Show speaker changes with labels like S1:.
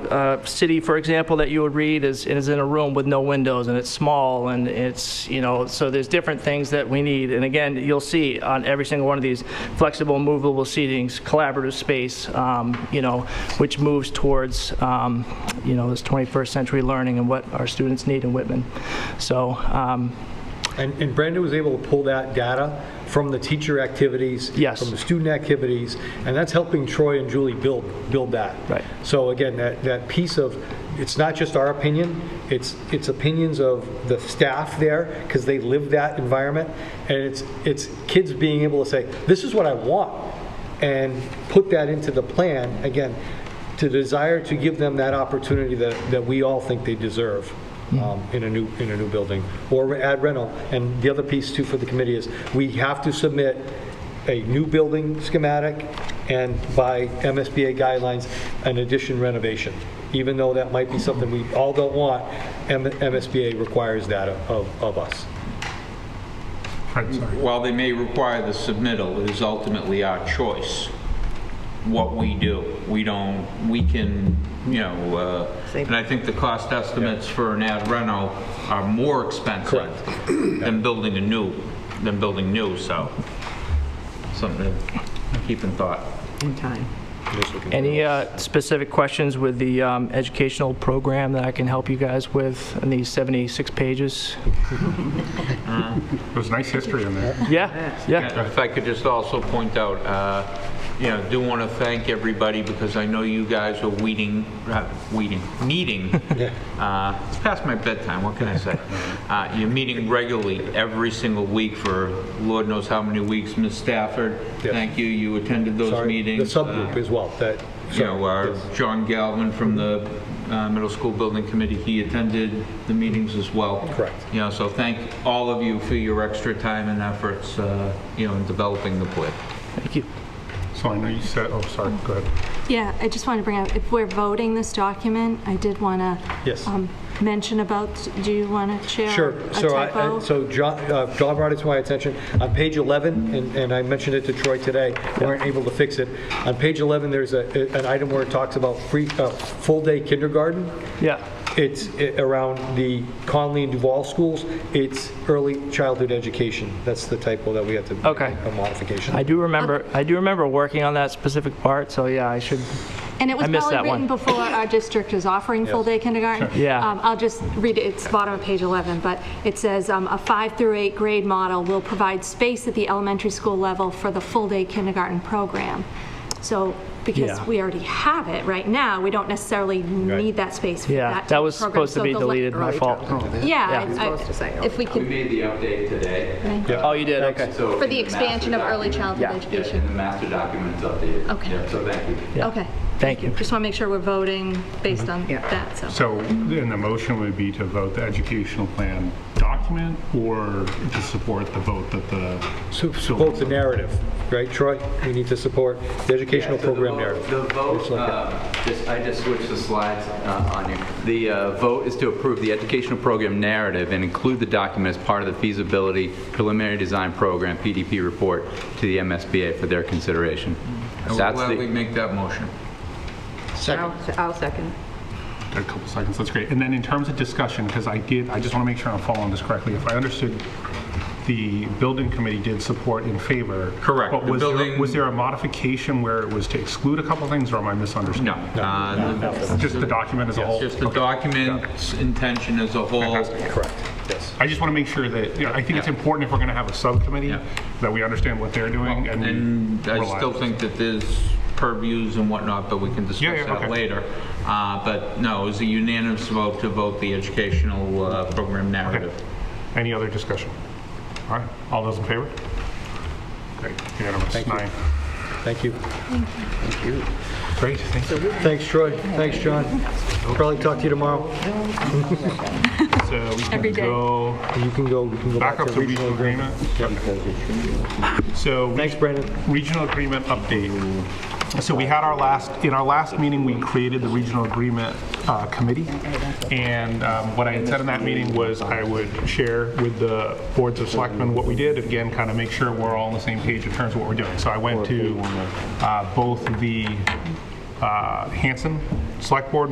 S1: uh, city, for example, that you would read is, is in a room with no windows and it's small and it's, you know, so there's different things that we need. And again, you'll see on every single one of these flexible, movable seatings, collaborative space, um, you know, which moves towards, um, you know, this 21st century learning and what our students need in Whitman. So, um,
S2: And and Brandon was able to pull that data from the teacher activities.
S1: Yes.
S2: From the student activities, and that's helping Troy and Julie build, build that.
S1: Right.
S2: So again, that, that piece of, it's not just our opinion, it's, it's opinions of the staff there, because they live that environment, and it's, it's kids being able to say, this is what I want, and put that into the plan, again, to desire to give them that opportunity that, that we all think they deserve um, in a new, in a new building, or add rental. And the other piece too for the committee is, we have to submit a new building schematic and by MSBA guidelines, an addition renovation. Even though that might be something we all don't want, M- MSBA requires that of, of us.
S3: Fred, sorry.
S4: While they may require the submittal, it is ultimately our choice what we do. We don't, we can, you know, uh, and I think the cost estimates for an ad reno are more expensive than building a new, than building new, so something to keep in thought.
S5: in time.
S1: Any uh, specific questions with the um, educational program that I can help you guys with in these 76 pages?
S3: There was nice history in there.
S1: Yeah, yeah.
S4: If I could just also point out, uh, you know, do want to thank everybody because I know you guys are weeding, uh, weeding, meeting. uh, It's past my bedtime, what can I say? Uh, You're meeting regularly every single week for Lord knows how many weeks. Ms. Stafford,
S2: Yes.
S4: thank you, you attended those
S2: Sorry,
S4: meetings. Uh,
S2: The subgroup as well, that.
S4: You know, our John Galvin from the uh, Middle School Building Committee, he attended the meetings as well.
S2: Correct.
S4: You know, so thank all of you for your extra time and efforts, uh, you know, in developing the plan.
S1: Thank you.
S3: So I know you said, oh, sorry, go ahead.
S6: Yeah, I just want to bring up, if we're voting this document, I did want to. um,
S2: Yes.
S6: Mention about, do you want to share?
S2: Sure.
S6: A
S2: So I- I,
S6: typo?
S2: so John, uh, John brought it to my attention. On page 11, and, and I mentioned it to Troy today, we weren't able to fix it. On page 11, there's a, an item where it talks about free, uh, full-day kindergarten.
S1: Yeah,
S2: It's i- around the Conley and Duval schools. It's early childhood education. That's the typo that we have to. make
S1: Okay.
S2: A modification.
S1: I do remember, I do remember working on that specific part, so yeah, I should,
S6: And it
S1: I
S6: was
S1: missed
S6: probably
S1: that one.
S6: written before our district is offering full-day kindergarten.
S1: Yeah.
S6: Um, I'll just read it, it's bottom of page 11, but it says, um, "A five through eight grade model will provide space at the elementary school level for the full-day kindergarten program." So, because
S1: Yeah.
S6: we already have it right now, we don't necessarily need that space for that
S1: yeah,
S6: type
S1: that
S6: of
S1: was
S6: program.
S1: supposed to
S6: So
S1: be
S6: the le-
S1: deleted, my
S5: early
S1: fault.
S5: childhood.
S6: Yeah.
S1: Yeah.
S6: I- I-
S5: Supposed to say
S6: If we
S7: We
S6: could,
S7: made the update today.
S1: Oh, you did, okay.
S7: So
S6: for
S7: in
S6: the
S7: master
S6: expansion of early
S7: document-
S6: childhood
S1: Yeah.
S7: Yeah,
S6: education.
S7: and the master document's updated.
S6: Okay.
S7: Yeah, So thank you.
S1: Yeah.
S6: Okay.
S1: Thank you.
S6: Just want to make sure we're voting based on that, so.
S3: So then the motion would be to vote the educational plan document or to support the vote that the.
S2: So Support the narrative, right, Troy? We need to support the educational
S7: Yeah, so the
S2: program
S7: vote-
S2: narrative.
S7: The vote, uh, just- I just switched the slides uh, on you. The uh, vote is to approve the educational program narrative and include the document as part of the feasibility preliminary design program, PDP report, to the MSBA for their consideration.
S4: I will
S7: That's the-
S4: gladly make that motion.
S5: I'll I'll second.
S3: A couple seconds, that's great. And then in terms of discussion, because I did, I just want to make sure I'm following this correctly. If I understood, the building committee did support in favor.
S4: Correct.
S3: But
S4: The
S3: was there,
S4: building-
S3: was there a modification where it was to exclude a couple things or am I
S4: No.
S3: misunderstanding?
S4: Uh, the-
S3: Just the document as a whole?
S4: Just the
S3: Okay.
S4: document's intention as a whole.
S2: Correct, yes.
S3: I just want to make sure that, you know, I think it's
S4: Yeah.
S3: important if we're going to have a subcommittee,
S4: Yeah.
S3: that we understand what they're doing and. we
S4: And I
S3: rely
S4: still
S3: on it.
S4: think that there's purviews and whatnot, but we can
S3: Yeah,
S4: discuss
S3: yeah, okay.
S4: that later. Uh, But no, it was a unanimous vote to vote the educational uh, program narrative.
S3: Okay. Any other discussion? All right, all those in favor? Great, unanimous, nine.
S2: Thank you.
S3: Great, thank you.
S2: Thanks, Troy. Thanks, John. Probably talk to you tomorrow.
S3: So we
S6: Every
S3: can
S6: day.
S3: go
S2: You can go, you can go
S3: back
S2: back
S3: up
S2: to
S3: to regional
S2: regional.
S3: agreement. So.
S2: Thanks, Brandon.
S3: Regional agreement update. So we had our last, in our last meeting, we created the regional agreement uh, committee. And um, what I had said in that meeting was I would share with the boards of selectmen what we did. Again, kind of make sure we're all on the same page in terms of what we're doing. So I went to uh, both the uh, Hanson Select Board